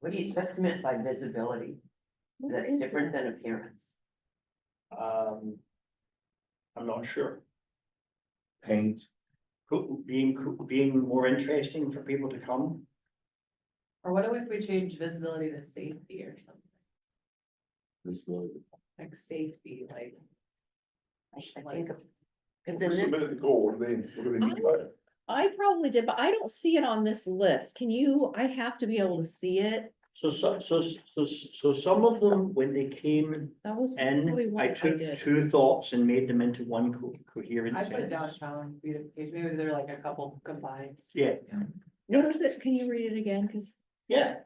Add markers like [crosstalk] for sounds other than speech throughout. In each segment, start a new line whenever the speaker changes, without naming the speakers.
What do you, that's meant by visibility, that's different than appearance.
Um. I'm not sure,
paint,
Could- being, could- being more interesting for people to come,
Or what if we change visibility to safety or something,
visibility.
like safety, like.
I I think, because in
We submitted
this,
the goal, what do they, what do they mean by it?
I probably did, but I don't see it on this list. Can you, I have to be able to see it.
so, so, so, so, so some of them, when they came
That was probably
in,
one I
I took
did.
two thoughts and made them into one co- coherent.
I put
sentence.
downtown beautification, maybe they're like a couple combined.
Yeah,
What is it? Can you read it again? Cause
yeah,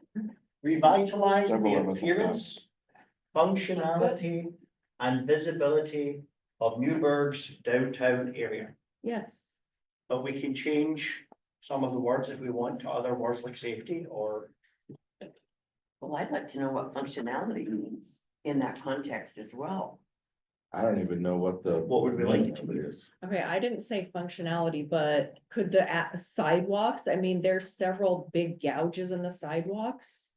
revitalize
Several of
the
us have
appearance, functionality and visibility of Newburgh's downtown area.
yes,
But we can change some of the words if we want to other words like safety or,
well, I'd like to know what functionality means in that context as well.
I don't even know what the.
What would we like
meaning
to
of it is.
okay, I didn't say functionality, but could the a- sidewalks, I mean, there's several big gouges in the sidewalks.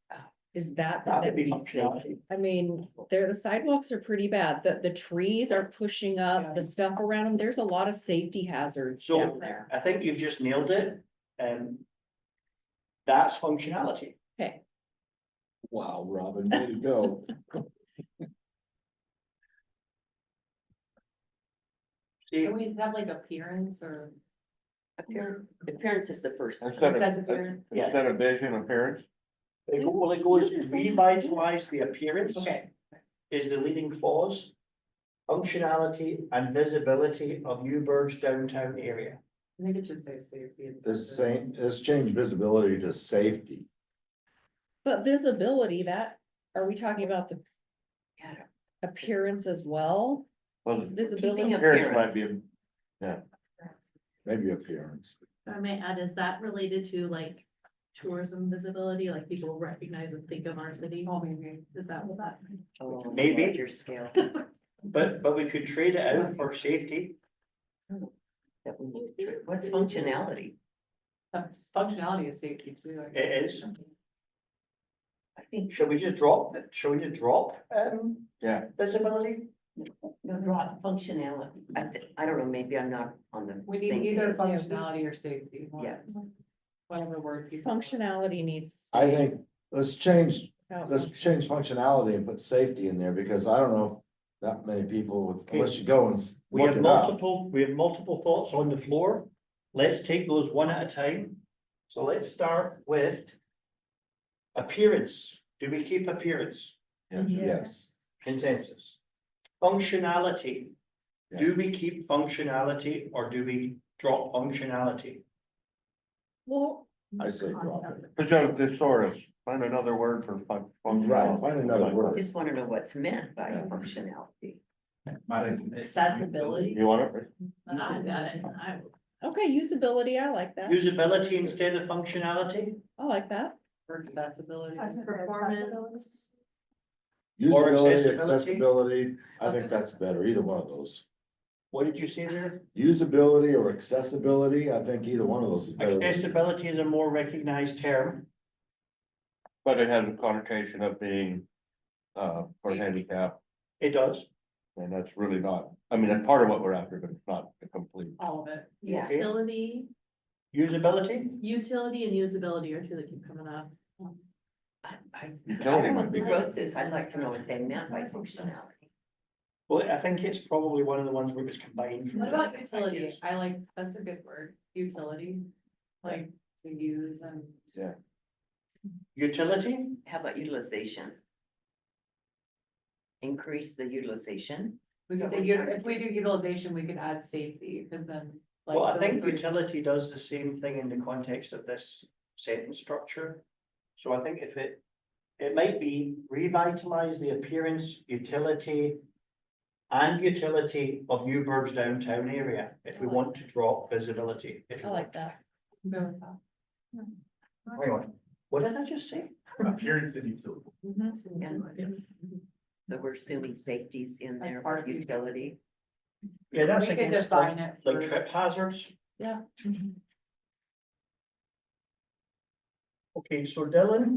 Is that?
That would be
that'd safe?
functionality.
I mean, there, the sidewalks are pretty bad, the, the trees are pushing up, the stuff around them, there's a lot of safety hazards
So-
down there.
I think you've just nailed it, um. That's functionality,
Wow, Robin, way to [laughs] go.
see,
Can we have like appearance or?
Appearance, appearance is the first. one.
Instead
Says
of,
appearance.
yeah,
instead of vision, appearance,
it go- well, it goes revitalize the appearance
Okay,
is the leading clause. Functionality and visibility of Newburgh's downtown area,
I think it should say safety. and
the
something.
same, let's change visibility to safety.
But visibility, that, are we talking about the
Yeah.
appearance as well?
Well,
Visibility,
Keeping
appearance might be, a- yeah. Maybe appearance.
I might add, is that related to like tourism visibility, like people recognize and think of our city?
Oh, maybe.
Is that what that?
Oh, on a
Maybe.
larger scale
but, but we could trade it out for safety.
that we need to try. What's functionality?
Uh, Functionality is safety too. I
It
guess.
is.
I think,
Shall we just drop, shall we just drop, um?
Yeah.
Visibility?
no, Rob, functionality, I, thi- I don't know, maybe I'm not on the.
We need
same
either
page.
functionality or safety. one-
Yeah.
Whatever word. people-
Functionality needs. to
I
stay
think, let's change,
out.
let's change functionality and put safety in there, because I don't know that many people with, unless you go and s-
We
look
have
it up.
multiple, we have multiple thoughts on the floor. Let's take those one at a time. So let's start with appearance. Do we keep appearance
Yes,
consensus? Functionality. Do we keep functionality or do we drop functionality?
Well,
I say drop it.
Put out a thesaurus, find another word for fun.
Right, find another word.
Just wanna know what's meant by functionality.
Accessibility.
You want it?
I got it. I,
okay, usability, I like that,
Usability instead of functionality?
I like that,
Or accessibility.
performance,
Or accessibility.
Usability, accessibility, I think that's better, either one of those.
What did you say there?
Usability or accessibility, I think either one of those is better.
Accessibility is a more recognized term.
But it has a connotation of being, uh, for handicap,
It does.
and that's really not, I mean, that's part of what we're after, but it's not the complete.
All of it.
Yeah.
utility,
Usability?
utility and usability are two that keep coming up.
I, I, I
Utility
don't know
might be
who
good.
wrote this, I'd like to know what they meant by functionality.
Well, I think it's probably one of the ones where it's combined. from
What
the-
about utility? I like, that's a good word, utility, like to use and.
Yeah.
Utility?
How about utilization? Increase the utilization,
We could say, u- if we do utilization, we could add safety, because then. like
Well, I
those
think
three-
utility does the same thing in the context of this sentence structure. So I think if it, it might be revitalize the appearance, utility. And utility of Newburgh's downtown area, if we want to drop visibility. if
I
we
like
want.
that.
Go with that.
Hang on, what did I just say?
Appearance and utility.
so we're assuming safety's in
As
there,
part of
utility.
Yeah,
We
that's
could
against like,
define it.
like
for-
trip hazards.
Yeah.
Okay, so Dylan.